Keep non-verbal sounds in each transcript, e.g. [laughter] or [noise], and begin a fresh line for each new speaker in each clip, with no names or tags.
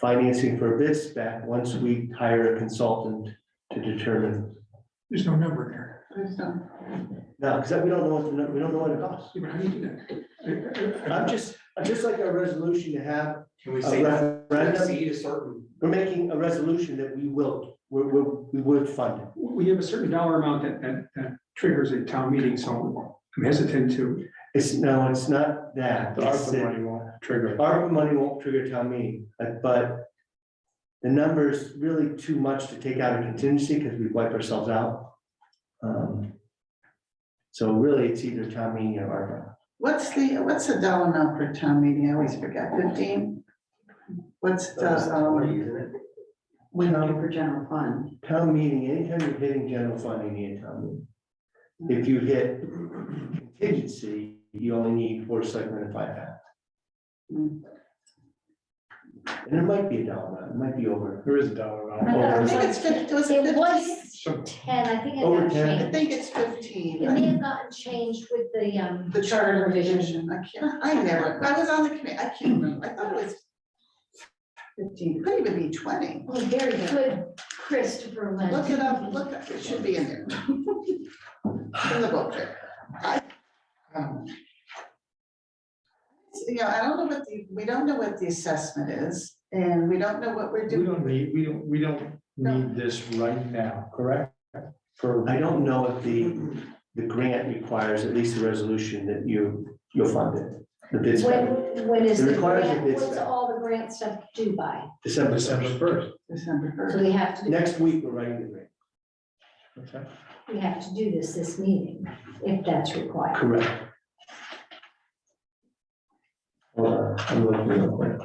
financing for bid spec once we hire a consultant to determine.
There's no number in there.
There's no-
No, because we don't know what, the- we don't know what it costs.
See, but how do you do that? I- I- I-
I'm just, I'm just like a resolution to have
Can we
a
say that,
referendum.
exceed a certain,
We're making a resolution that we will, we, we, we would fund it.
We have a certain dollar amount that, that, that triggers a town meeting, so I'm hesitant to.
It's, no, it's not that. It's that-
won't trigger.
ARPA money won't trigger town meeting, but- but the number's really too much to take out of contingency because we wipe ourselves out. Um, So really, it's either town meeting or ARPA.
What's the, what's the dollar amount for town meeting? I always forget, fifteen? What's
that's
Uh,
the,
twenty,
um,
isn't it?
we do for general fund?
Town meeting, anytime you're hitting general fund, you need a town meeting. If you hit contingency, you only need four selectmen and five half.
Mm.
And it might be a dollar, amount, it might be over.
There is a dollar
I
Oh,
thought- I
it's
think it's fifteen, was it
It
fifteen?
was
So
ten, I think it
Over
got
10.
I
changed.
think it's fifteen.
It may have gotten changed with the, um,
The charter revision, I can't, I never, I was on the committee, I can't remember, I thought it was fifteen, could even be twenty.
oh, very good Christopher Lynn.
Look it up, look, up. it should be in there. In the book there. I, um, You know, I don't know what the, we don't know what the assessment is, and we don't know what we're
We
doing.
don't need, we don't, we don't need this right now, correct? For,
I don't know if the, the grant requires at least a resolution that you, you'll fund it. The bid spec.
When, when is
It
the
requires a
grant,
bid
what's
spec.
all the grant stuff due by?
December first.
December first,
December
So
first.
we have to,
Next week, we're writing the grant.
okay.
we have to do this this meeting, if that's required.
Correct. Hold on, I'm looking real quick.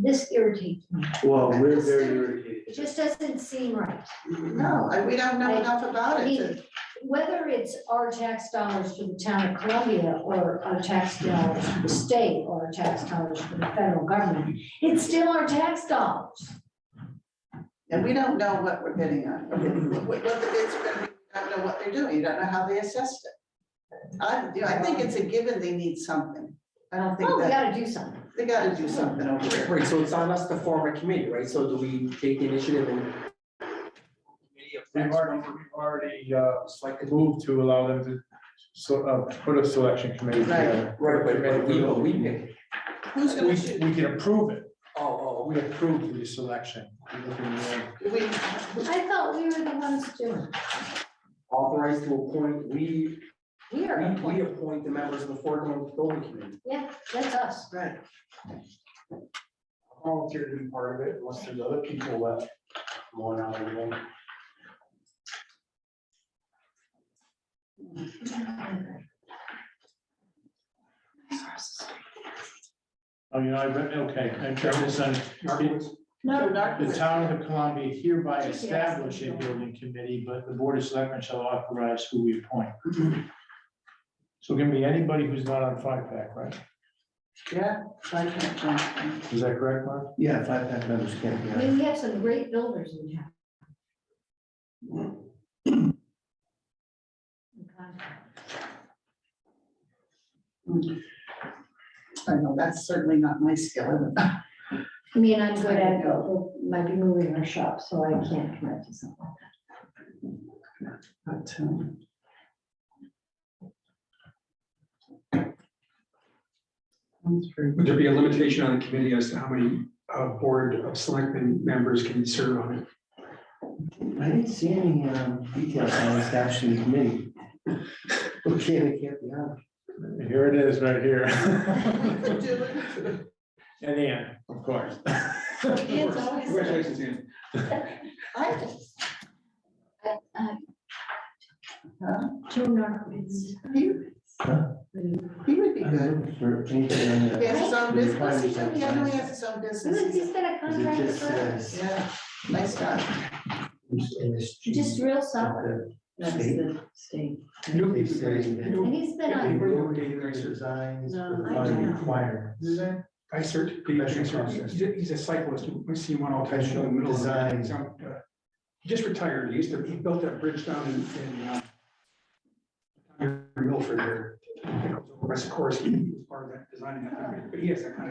This irritates me.
Well, we're very irritated.
It just doesn't seem right.
No, I- we don't know enough about
I
it.
mean,
to-
whether it's our tax dollars to the town of Columbia or our tax dollars to the state or our tax dollars to the federal government, it's still our tax dollars.
And we don't know what we're bidding on, or what, what the bids are gonna be, I don't know what they're doing, you don't know how they assessed it. I, you know, I think it's a given they need something. I don't think
Oh, we
that,
gotta do something.
they gotta do something over there.
Right, so it's on us to form a committee, right, so do we take the initiative and?
We've already, we've already, uh, moved to allow them to, so, uh, put a selection committee together.
Right, but but we, but we pick,
Who's
We,
gonna shoot?
we can approve it,
oh, oh,
we approve the selection. We look in the-
We,
I thought we were the ones doing. it.
authorized oh, to appoint, we,
We
we,
are
we
appointed.
appoint the members of the Fort Hill Building Committee.
Yeah, that's us.
right.
I Volunteer to be part of it, unless there's other people left. More out of them. Oh, you know, I read, okay, I turned this on,
No,
The town of Columbia hereby establish a building committee, but the board of selectmen shall authorize who we appoint. So it can be anybody who's not on five pack, right?
Yeah. I can't find it.
Is that correct, Mark?
Yeah, five pack members can't be
I
on. it.
mean, we have some great builders in town.
I know, that's certainly not my skill. uh,
I mean, I'm good at, might be moving our shop, so I can't commit to something.
But, um, That's very
would there be a limitation on the committee as to how many uh, board of selectmen members can serve on it?
I didn't see any um, details on establishing the committee. Okay, it can't be on.
Here it is, right here. [laughs]
good. Do it.
And Ann, of course.
Ian's always-
Congratulations, Ian.
[laughs] I just- Huh?
Uh, Joe Narcoits.
He he would be
I'm
good.
looking for anything on
He has
the.
his own
Right.
business. He should be, I know he has his own business.
He's been a
Is it
contractor
just,
for,
uh,
Yeah, nice guy.
industry?
just real solid.
The uh,
That's
state?
the state.
New people, new-
And he's been on,
Designs
No,
for
I
fund
don't know.
required.
I searched, the- he's a- he's a cyclist, we see one all the time, in the middle of the
Design.
he's out, uh, He just retired, he used to, he built that bridge down in, in, uh, near Milford there. Of course, he was part of that design, but he has that kind of